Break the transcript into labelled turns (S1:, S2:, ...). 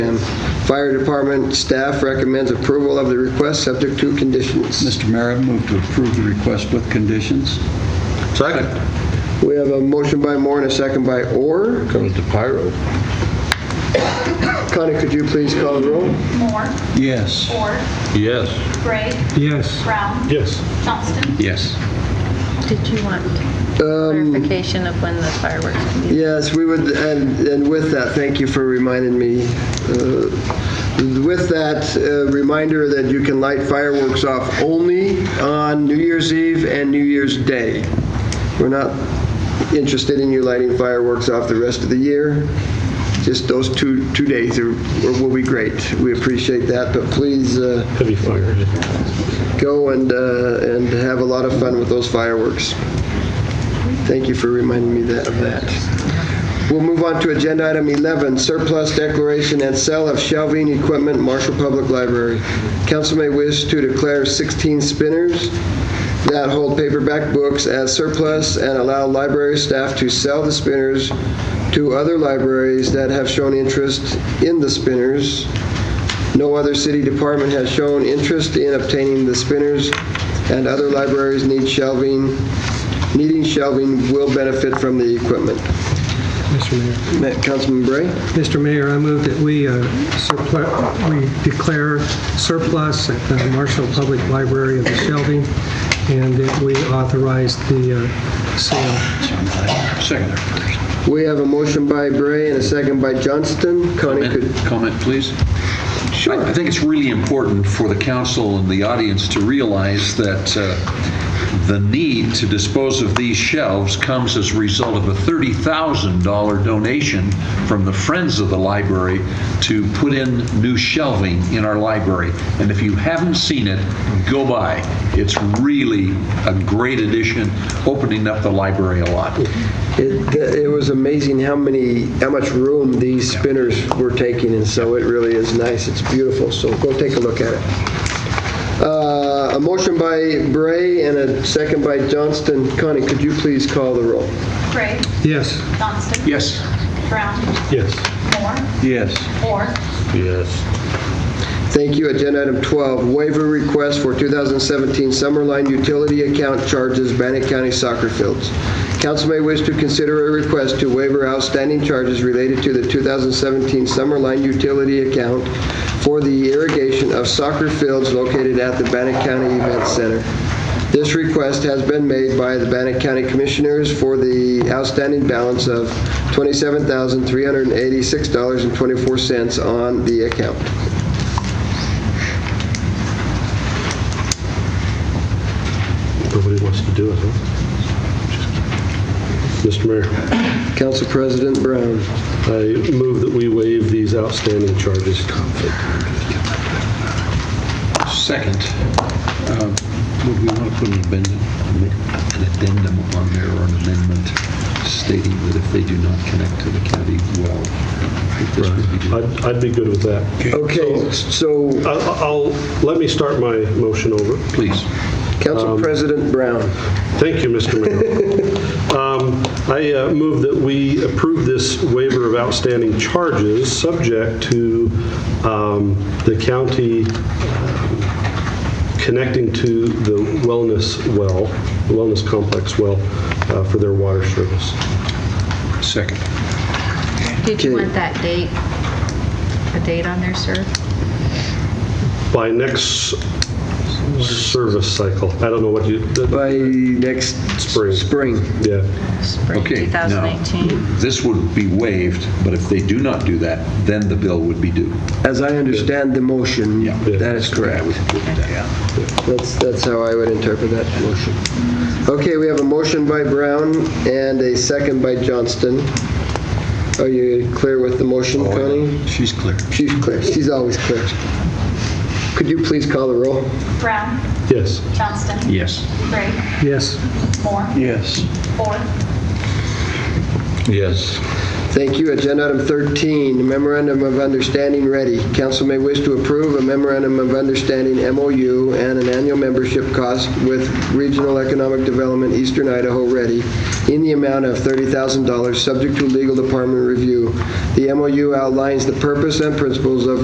S1: And Fire Department staff recommends approval of the request, subject to conditions.
S2: Mr. Mayor, I move to approve the request with conditions.
S3: Second.
S1: We have a motion by Moore and a second by Orr.
S3: Comes to Pyro.
S1: Connie, could you please call the roll?
S4: Moore,
S2: Yes.
S4: Ford,
S3: Yes.
S4: Gray,
S5: Yes.
S4: Brown. Yes. Johnston.
S2: Yes.
S6: Did you want clarification of when the fireworks can be?
S1: Yes, we would, and, and with that, thank you for reminding me. Uh, With that uh, reminder that you can light fireworks off only on New Year's Eve and New Year's Day. We're not interested in you lighting fireworks off the rest of the year. Just those two, two days are- will be great. We appreciate that, but please uh,
S3: Heavy fire.
S1: go and, uh, and have a lot of fun with those fireworks. Thank you for reminding me that, of that. We'll move on to agenda item 11, surplus declaration and sale of shelving equipment, Marshall Public Library. Council may wish to declare 16 spinners that hold paperback books as surplus and allow library staff to sell the spinners to other libraries that have shown interest in the spinners. No other city department has shown interest in obtaining the spinners, and other libraries need shelving, needing shelving will benefit from the equipment.
S5: Mr. Mayor.
S1: Ma- Councilman Bray?
S5: Mr. Mayor, I move that we uh, surplu- we declare surplus at the Marshall Public Library of the shelving, and that we authorize the uh, sale.
S2: Second.
S1: We have a motion by Bray and a second by Johnston. Connie could,
S7: Comment, please?
S1: sure.
S7: I I think it's really important for the council and the audience to realize that uh, the need to dispose of these shelves comes as a result of a $30,000 donation from the Friends of the Library to put in new shelving in our library. And if you haven't seen it, go by. It's really a great addition, opening up the library a lot.
S1: It it was amazing how many, how much room these spinners were taking, and so it really is nice. It's beautiful, so go take a look at it. Uh, A motion by Bray and a second by Johnston. Connie, could you please call the roll?
S4: Gray,
S5: Yes.
S4: Johnston.
S7: Yes.
S4: Brown,
S5: Yes.
S4: Moore,
S2: Yes.
S4: Ford,
S3: Yes.
S1: Thank you. Agenda item 12, waiver request for 2017 Summerline Utility Account Charges, Bannock County Soccer Fields. Council may wish to consider a request to waiver outstanding charges related to the 2017 Summerline Utility Account for the irrigation of soccer fields located at the Bannock County Event Center. This request has been made by the Bannock County Commissioners for the outstanding balance of $27,386.24 on the account.
S3: Nobody wants to do it, huh? Mr. Mayor,
S1: Council President Brown.
S3: I move that we waive these outstanding charges.
S7: Second, uh, would we want to put an addendum, an addendum on there or an amendment stating that if they do not connect to the county well, that this would be...
S3: I'd I'd be good with that.
S1: Okay, so,
S3: I'll- I'll, let me start my motion over.
S7: Please.
S1: Council President Brown.
S3: Thank you, Mr. Mayor. Um, I uh, move that we approve this waiver of outstanding charges, subject to um, the county um, connecting to the wellness well, wellness complex well, uh, for their water service.
S7: Second.
S6: Did you
S1: Okay.
S6: want that date, a date on there, sir?
S3: By next service cycle. I don't know what you,
S1: By next
S3: Spring.
S1: spring.
S3: yeah,
S6: Spring
S7: Okay, now-
S6: 2018?
S7: This would be waived, but if they do not do that, then the bill would be due.
S1: As I understand the motion,
S7: Yeah.
S1: that is correct. That's, that's how I would interpret that motion. Okay, we have a motion by Brown and a second by Johnston. Are you clear with the motion, Connie?
S2: She's clear.
S1: She's clear, she's always clear. Could you please call the roll?
S4: Brown,
S3: yes.
S4: Johnston.
S7: Yes.
S4: Gray,
S5: Yes.
S4: Moore,
S2: Yes.
S4: Ford,
S2: Yes.
S1: Thank you. Agenda item 13, memorandum of understanding ready. Council may wish to approve a memorandum of understanding MOU and an annual membership cost with Regional Economic Development Eastern Idaho Ready in the amount of $30,000, subject to legal department review. The MOU outlines the purpose and principles of